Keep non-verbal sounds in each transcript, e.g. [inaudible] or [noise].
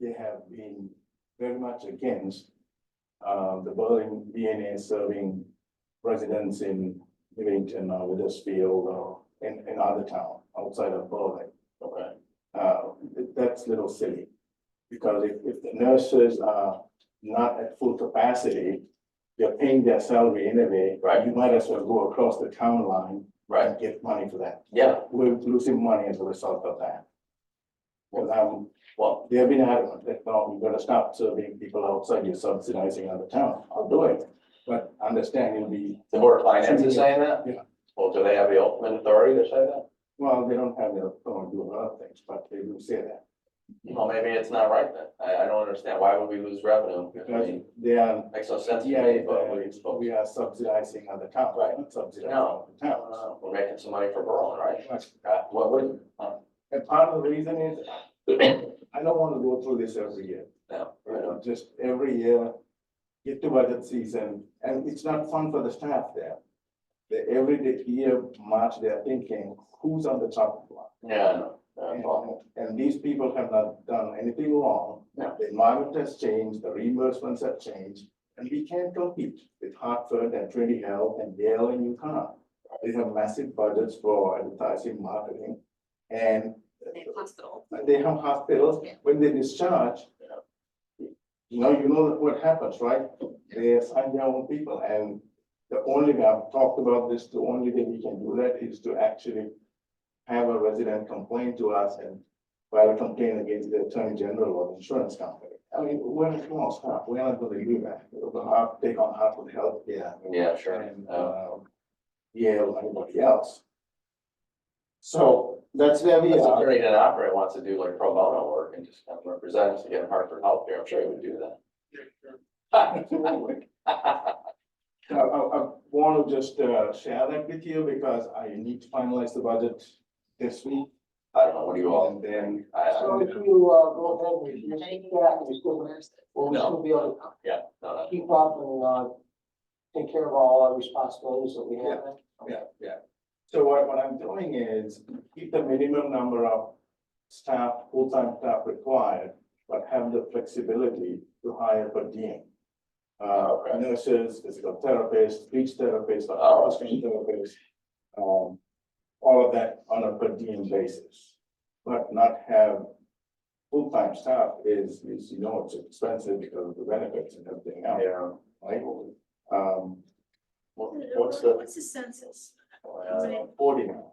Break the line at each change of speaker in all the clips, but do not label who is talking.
they have been very much against uh, the building being and serving residents in uh, Livingston or Weathersfield or in, in uh, other town outside of Berlin.
Okay.
Uh, that's a little silly. Because if, if the nurses are not at full capacity, you're paying their salary anyway.
Right.
You might as well go across the town line
Right,
and get money for that.
yeah,
We're losing money as a result of that. Because I'm,
well,
they have been adamant that no, we're gonna stop serving people outside, you're subsidizing out of town, I'll do it. But understand you'll be,
the board of finance is saying that?
Yeah.
Well, do they have the ultimate authority to say that?
well, they don't have their phone, do a lot of things, but they will say that.
Well, maybe it's not right then. I, I don't understand. Why would we lose revenue? I
Because
mean,
they are,
makes no sense to
yeah,
me, but we
uh,
supposed
we are subsidizing other town, right,
Right.
not subsidizing other
No.
towns.
We're making some money for Berlin, right? Uh, What would? uh,
And part of the reason is, I don't wanna go through this every year.
No, I Uh,
You
don't-
know, just every year, get to budget season, and it's not fun for the staff there. They, every day- year, March, they're thinking, who's on the top block?
yeah, no, no,
And,
well,
and these people have not done anything wrong.
No.
The environment has changed, the reimbursements have changed, and we can't compete with Hartford and Trinity Health and Yale and UConn. They have massive budgets for advertising, marketing, and
in hospital.
and they have hospitals,
Yeah.
when they discharge. You know, you know what happens, right? They assign their own people and the only way I've talked about this, the only way we can do that is to actually. Have a resident complain to us and file a complaint against the attorney general or the insurance company. I mean, we're a small staff, we're not gonna do that, it'll have, take on half of the health, yeah.
Yeah, sure.
And,
Uh,
uh, Yale, anybody else.
So that's where we
If
are.
attorney didn't operate wants to do like pro bono work and just kind of represent us to get Hartford help here, I'm sure he would do [laughs]
[laughs]
that.
I, I, I want to just uh, share that with you because I need to finalize the budget this week.
I don't know, what do you all,
And then,
I, I-
So if you uh, go ahead with your staff, we still, we'll
No.
still be able to
yeah, no,
keep up and uh, take care of all our responsibilities that we have.
yeah, yeah. So what, what I'm doing is keep the minimum number of staff, full-time staff required, but have the flexibility to hire per diem. Uh,
Okay.
nurses, physical therapists, speech therapists, or
Oh.
counseling therapists. Um, all of that on a per diem basis, but not have full-time staff is, is, you know, it's expensive because of the benefits and everything
no.
else,
Yeah.
right? Um,
What- What's the,
What's the census?
uh,
forty now.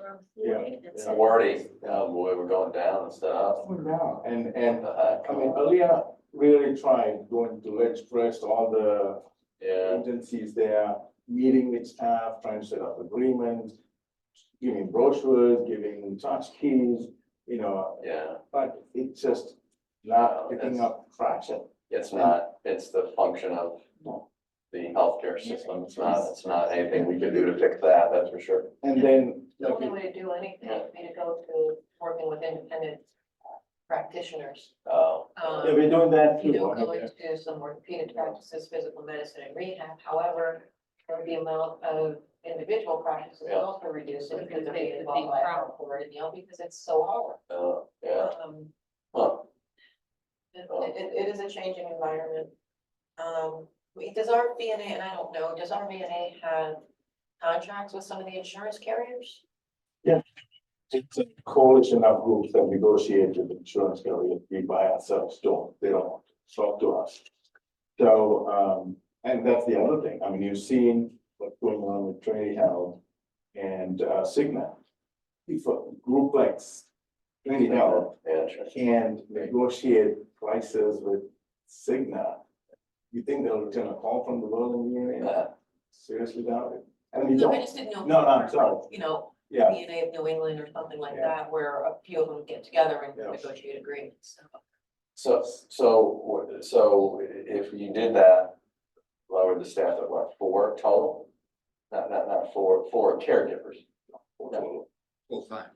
Around
Yeah,
40, that's it.
Wardy, oh boy, we're going down and stuff.
now. And, and,
The heck?
I mean, earlier, really tried going to Ledge Press, all the
Yeah,
agencies there, meeting with staff, trying to set up agreements, giving brochures, giving touch keys, you know,
yeah,
but it's just
No,
not picking
that's-
up traction.
it's not, it's the function of the healthcare system, it's not, it's not anything we can do to fix that, that's for sure.
And then,
The only way to do anything would be to go to working with independent uh, practitioners.
Oh,
Um,
yeah, we're doing that
You
too.
know,
right?
going to some orthopedic practices, physical medicine and rehab, however, or the amount of individual practices is
Yeah.
also reducing because
Because they-
they
they
involve
crowd.
out for it, you know, because it's so
uh, yeah,
hard. Um,
huh,
it, it, it is a changing environment. Um, we- does our VNA, and I don't know, does our VNA have contracts with some of the insurance carriers?
It's a coalition of groups that negotiate with insurance carriers, we by ourselves don't, they don't talk to us. So, um, and that's the other thing, I mean, you've seen what's going on with Trinity Health and uh, Cigna. If a group like Trinity Health
yeah, sure.
can negotiate prices with Cigna, you think they'll return a call from the Berlin Union?
Yeah.
Seriously doubt it. And we
No, I
don't,
just didn't know. if
No, no, I'm
our-
sorry.
You know,
yeah,
DNA of New England or something like
Yeah.
that, where a few of them get together and
Yeah.
negotiate agreements.
So,
So
so, what- so if you did that, lower the staff at what, four total? Not, not, not four, four caregivers,
full time.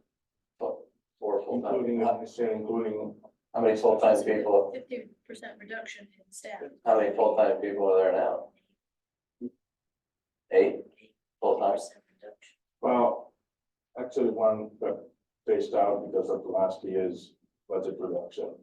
including,
four full-time. How-
including
How many full-time people,
Fifty percent reduction in staff.
how many full-time people are there now? Eight full-time?
50% reduction.
Well, actually, one got phased out because of last year's budget reduction.